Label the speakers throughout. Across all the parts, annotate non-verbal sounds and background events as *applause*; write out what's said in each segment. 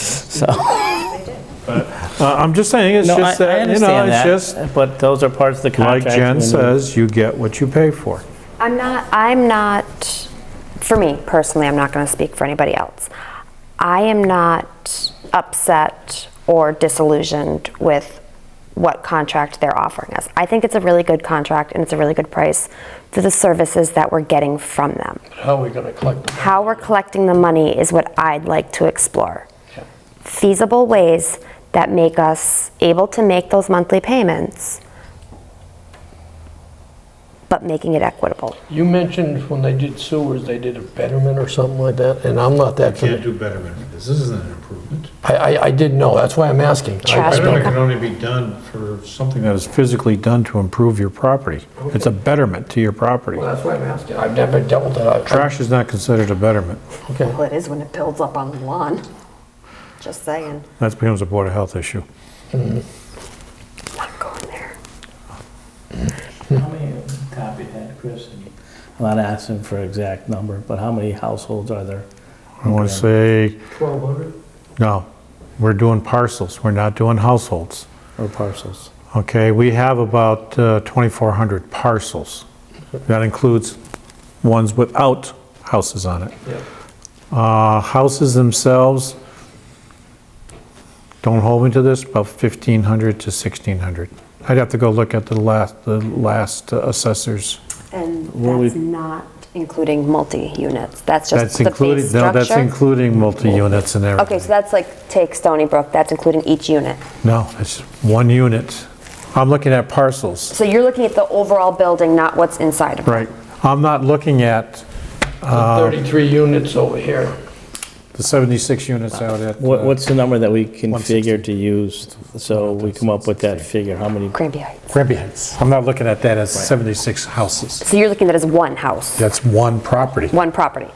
Speaker 1: *laughs* So,
Speaker 2: Uh, I'm just saying, it's
Speaker 1: no, I
Speaker 2: just
Speaker 1: I
Speaker 2: that, you know,
Speaker 1: understand
Speaker 2: it's just,
Speaker 1: that, but those are parts of the
Speaker 2: like
Speaker 1: contract.
Speaker 2: Jen
Speaker 1: when-
Speaker 2: says, you get what you pay for.
Speaker 3: I'm not, I'm not, for me personally, I'm not going to speak for anybody else. I am not upset or disillusioned with what contract they're offering us. I think it's a really good contract and it's a really good price for the services that we're getting from them.
Speaker 4: How are Oh, we going to collect them?
Speaker 3: How we're collecting the money is what I'd like to explore. Feasible ways that make us able to make those monthly payments, but making it equitable.
Speaker 4: You mentioned when they did sewers, they did a betterment or something like that, and I'm not that
Speaker 5: Can't
Speaker 4: familiar.
Speaker 5: do betterment with this, this isn't an improvement.
Speaker 4: I, I, I didn't know, that's why I'm asking.
Speaker 3: Trash
Speaker 4: I- I-
Speaker 5: Betterment can only be done for
Speaker 2: Something
Speaker 5: something
Speaker 2: that is physically done to improve your property. It's a betterment to your property.
Speaker 4: Well, That's why I'm asking, I've never dealt with that. I- I-
Speaker 2: Trash is not considered a betterment.
Speaker 4: Okay,
Speaker 6: Well, it is when it builds up on the lawn. Just saying.
Speaker 2: That becomes a Board of Health issue.
Speaker 3: Not going there.
Speaker 1: How many copy had Chris? And I'm not asking for exact number, but how many households are there?
Speaker 2: I want to say,
Speaker 4: 1,200?
Speaker 2: no, we're doing parcels, we're not doing households.
Speaker 1: Or parcels?
Speaker 2: Uh, Okay, we have about uh, 2,400 parcels. That includes ones without houses on it.
Speaker 4: Yeah.
Speaker 2: Uh, Houses themselves, don't hold me to this, about 1,500 to 1,600. I'd have to go look at the last, the last assessors.
Speaker 6: And
Speaker 1: Well, we-
Speaker 6: that's not including multi-units. That's just
Speaker 2: That's
Speaker 6: the base
Speaker 2: including, no, that's
Speaker 6: structure.
Speaker 2: including multi-units and everything.
Speaker 3: Okay, so that's like, take Stony Brook, that's including each unit.
Speaker 2: No, it's one unit. I'm looking at parcels.
Speaker 3: So you're looking at the overall building, not what's inside of it.
Speaker 2: Right. I'm not looking at
Speaker 4: 33 units over here.
Speaker 2: the 76 units out at.
Speaker 1: What,
Speaker 2: uh,
Speaker 1: what's the number that we can
Speaker 2: 160.
Speaker 1: figure to use, so we come up with that figure, how many?
Speaker 3: Granby Heights.
Speaker 2: Granby Heights. I'm not looking at that as 76 houses.
Speaker 3: So you're looking at it as one house,
Speaker 2: That's one property.
Speaker 3: one property.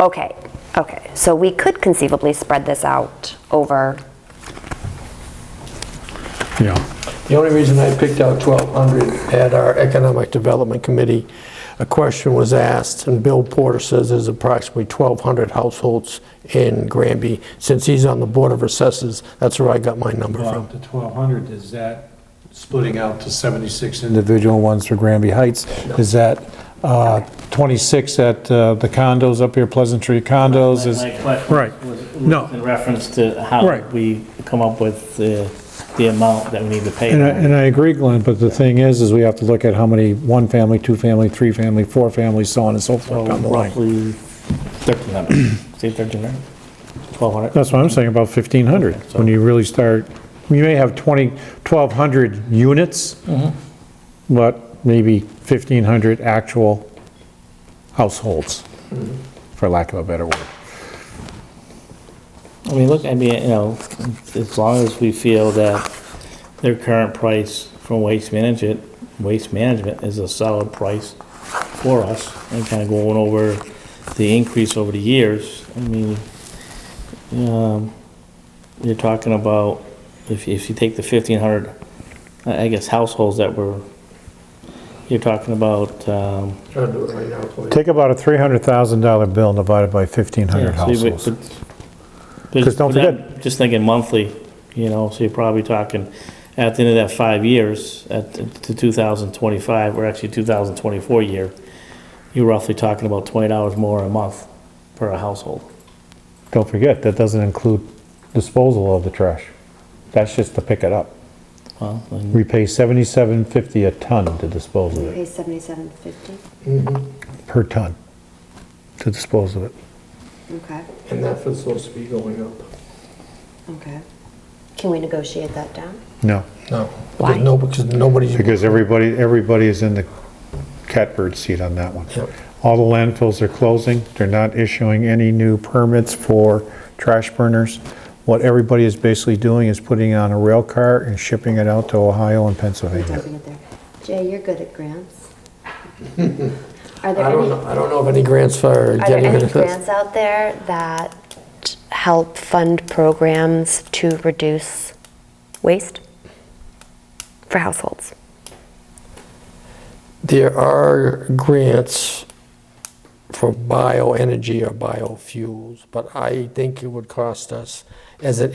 Speaker 3: Okay, okay. So we could conceivably spread this out over,
Speaker 2: Yeah.
Speaker 4: The only reason I picked out 1,200 at our Economic Development Committee, a question was asked, and Bill Porter says there's approximately 1,200 households in Granby. Since he's on the Board of Assessors, that's where I got my number
Speaker 5: Well,
Speaker 4: from.
Speaker 5: the 1,200, is that splitting out to 76 individual ones for Granby Heights? Is that uh, 26 at uh, the condos up here, Pleasant Tree condos? Is Right. No.
Speaker 1: In reference to how
Speaker 2: Right.
Speaker 1: we come up with the, the amount that we need to pay.
Speaker 2: And I, and I agree, Glenn, but the thing is, is we have to look at how many, one family, two family, three family, four family, so on and so
Speaker 1: So
Speaker 2: forth down the line.
Speaker 1: roughly 1,300, say 1,300, 1,200?
Speaker 2: That's what I'm saying, about 1,500, when you really start, you may have 20, 1,200 units, but maybe 1,500 actual households, for lack of a better word.
Speaker 1: I mean, look, I mean, you know, as long as we feel that their current price from Waste Management, Waste Management is a solid price for us, and kind of going over the increase over the years, I mean, um, you're talking about, if, if you take the fifteen hundred, I I guess households that were, you're talking about, um,
Speaker 4: Trying to do it right now, please.
Speaker 2: Take about a $300,000 bill and divide it by
Speaker 1: Yeah, so
Speaker 2: 1,500
Speaker 1: you-
Speaker 2: households.
Speaker 1: but-
Speaker 2: Because don't
Speaker 1: but I'm
Speaker 2: forget-
Speaker 1: Just thinking monthly, you know, so you're probably talking, at the end of that five years, at, to 2025, or actually 2024 year, you're roughly talking about $20 more a month per household.
Speaker 2: Don't forget, that doesn't include disposal of the trash. That's just to pick it up.
Speaker 1: Well, then-
Speaker 2: We pay 77.50 a ton to dispose of it,
Speaker 6: Pay seventy-seven fifty,
Speaker 2: per ton, to dispose of it.
Speaker 6: okay,
Speaker 4: And that's what's supposed to be going up.
Speaker 6: okay. Can we negotiate that down?
Speaker 2: No.
Speaker 4: No.
Speaker 3: Why?
Speaker 4: No, because nobody's.
Speaker 2: Because everybody, everybody is in the catbird seat on that one.
Speaker 4: Yep.
Speaker 2: All the landfills are closing, they're not issuing any new permits for trash burners. What everybody is basically doing is putting it on a rail car and shipping it out to Ohio and Pennsylvania.
Speaker 6: Dumping it there. Jay, you're good at
Speaker 4: *laughs*
Speaker 6: grants. Are there
Speaker 4: I don't
Speaker 6: any,
Speaker 4: know, I don't know of any grants for
Speaker 3: are there
Speaker 4: getting rid
Speaker 3: any
Speaker 4: of this.
Speaker 3: grants out there that help fund programs to reduce waste for households?
Speaker 4: There are grants for bioenergy or biofuels, but I think it would cost us, as an